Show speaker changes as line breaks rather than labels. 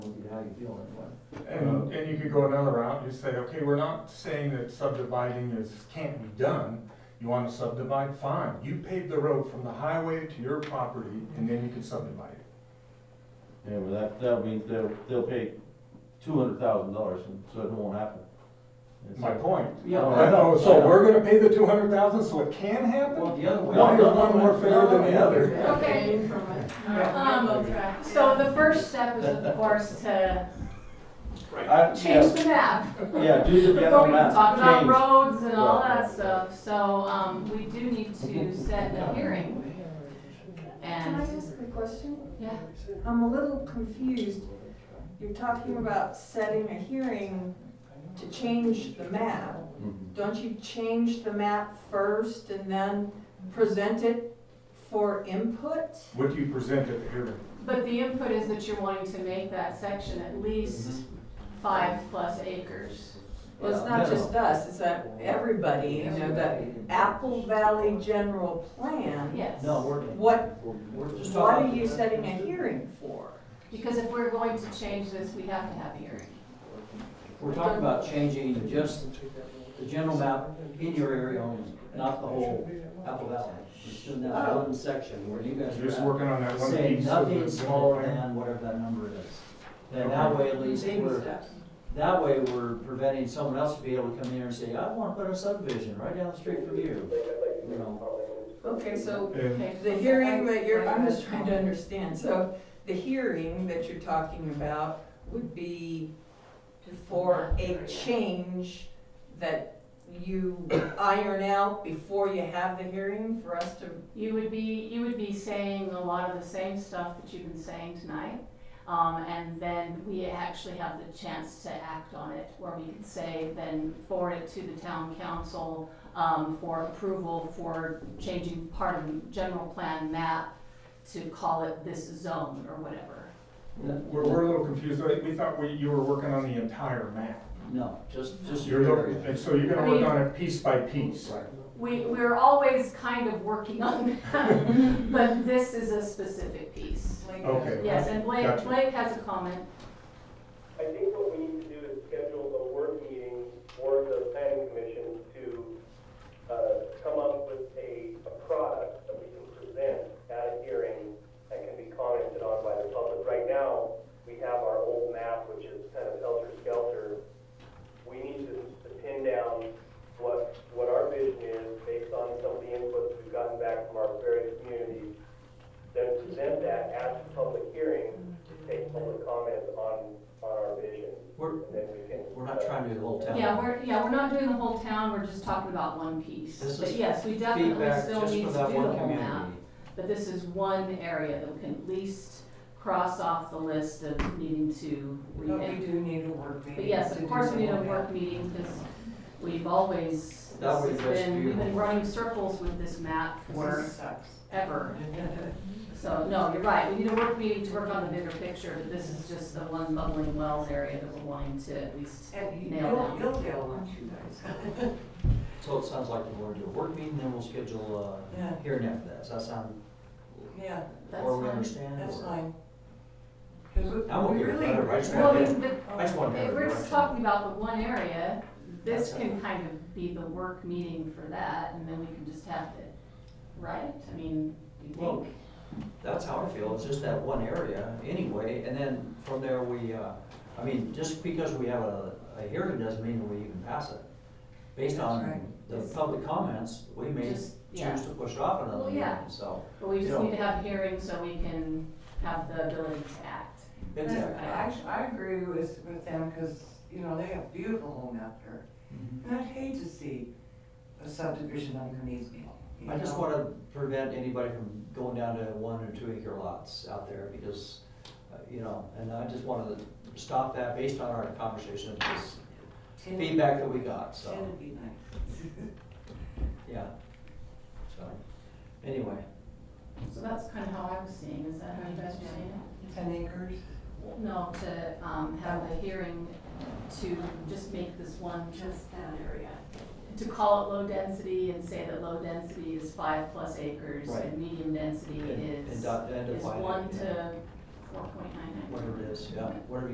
how you feel that way.
And, and you could go another route, just say, okay, we're not saying that subdividing is, can't be done. You wanna subdivide, fine, you pave the road from the highway to your property, and then you can subdivide it.
Yeah, well, that, that means they'll, they'll pay two hundred thousand dollars, and so it won't happen. It's-
My point.
Yeah.
Oh, I know,
Oh, so
I
we're gonna pay the two hundred thousand, so it can happen?
Well, the other way.
One is one more fair than the other.
Okay. Um, So the first step is, of course, to
I-
change the map.
Yeah, yeah, do the
Before
general
we
map,
talk about
change.
roads and all
Yeah.
that stuff, so, um, we do need to set a hearing.
Can I
And,
ask a question?
yeah,
I'm a little confused. You're talking about setting a hearing to change the map.
Mhm.
Don't you change the map first and then present it for input?
What do you present at the hearing?
but the input is that you're wanting to make that section at
Mm-hmm.
least
Mm-hmm.
five plus acres.
Well, it's not just us, it's that everybody, you know, the Apple Valley General Plan.
Yes.
No, we're,
What,
we're just
what
talking.
are you setting a hearing for?
Because if we're going to change this, we have to have a hearing.
We're talking about changing just the general map in your area only, not the whole Apple Valley. Just in that
Oh.
one section where you guys
You're just
are
working on that
at,
one
say
piece of the
nothing
general
smaller
plan?
than whatever that number is. Then that way at least
Baby
we're,
steps.
that way we're preventing someone else to be able to come in here and say, I want to put a subdivision right down the street from you. You know,
Okay, so
And
Okay.
The hearing that you're, I'm just trying to understand, so the hearing that you're talking about would be for a change that you iron out before you have the hearing for us to,
You would be, you would be saying a lot of the same stuff that you've been saying tonight. Um, and then we actually have the chance to act on it, where we could say, then forward it to the town council, um, for approval for changing part of the general plan map to call it this zone or whatever.
We're, we're a little confused, We- we thought we, you were working on the entire map.
no, just, just
You're,
your
looking-
area.
and so you're gonna work on it piece by piece.
We, we're always kind of working on that, but this is a specific piece.
like,
Okay.
Yes, and Blake,
Gotcha.
Blake has a comment.
I think what we need to do is schedule a work meeting for the planning commission to, uh, come up with a, a product that we can present at a hearing that can be commented on by the public. Right now, we have our old map, which is kind of helter-skelter. We need to, to pin down what, what our vision is based on some of the inputs we've gotten back from our various communities. Then present that at the public hearing, to take public comment on, on our vision.
We're,
And then we can.
we're not trying to do the whole town.
Yeah, we're, yeah, we're not doing the whole town, we're just talking about one piece.
This
But
is
yes, we definitely
Feedback
still
just
need
for
to do the
that one
whole
community.
map. But this is one area that we can at least cross off the list of needing to
But we
revamp.
do need a work meeting.
But yes,
to
of course,
do
we need a
all
work meeting because we've always,
That
this
would
has
just
been,
be-
we've been running circles with this map
that.
for
This sucks.
ever. So, no, you're right, we need a work meeting to work on the bigger picture, but this is just the one bubbling wells area that we're wanting to at least nail down.
So it sounds like we're gonna do a work meeting, then we'll schedule
Yeah.
a hearing after that. Does that sound,
Yeah,
That's
or we
fine.
understand? or-
fine.
I'm okay with that, I just
Well,
want
we-
to,
but
I just want to
If
have a
we're just
direction.
talking about the one area, this can kind of be the work meeting for that, and then we can just have it, right? I mean, do you
Well-
think?
That's how I feel, it's just that one area anyway, and then from there we, uh, I mean, just because we have a, a hearing doesn't mean we even pass it. Based on the
Yes.
public comments, we may
Just- yeah.
choose to push it off
Well,
another
yeah.
meeting, so.
But we just
No.
need to have hearings so we can have the ability to act.
Exactly.
I, I agree with, with them, because, you know, they have beautiful home out there.
Mm-hmm.
And I'd hate to see a subdivision underneath me. you
I just
know?
wanna prevent anybody from going down to one or two acre lots out there because, uh, you know, and I just wanted to stop that based on our conversation, this
Ten-
feedback that we got,
Ten
so,
would be nice.
yeah. So, anyway,
So that's kind of how I was seeing, is that how you guys were seeing
Ten acres?
it? No, to, um, have a hearing to just make this one,
Just that area.
to call it low density and say that low density is five plus acres
Right.
and medium density
and,
is.
and dot- and
is
define it,
one
you know,
to four point nine nine.
Whatever it is, yeah, whatever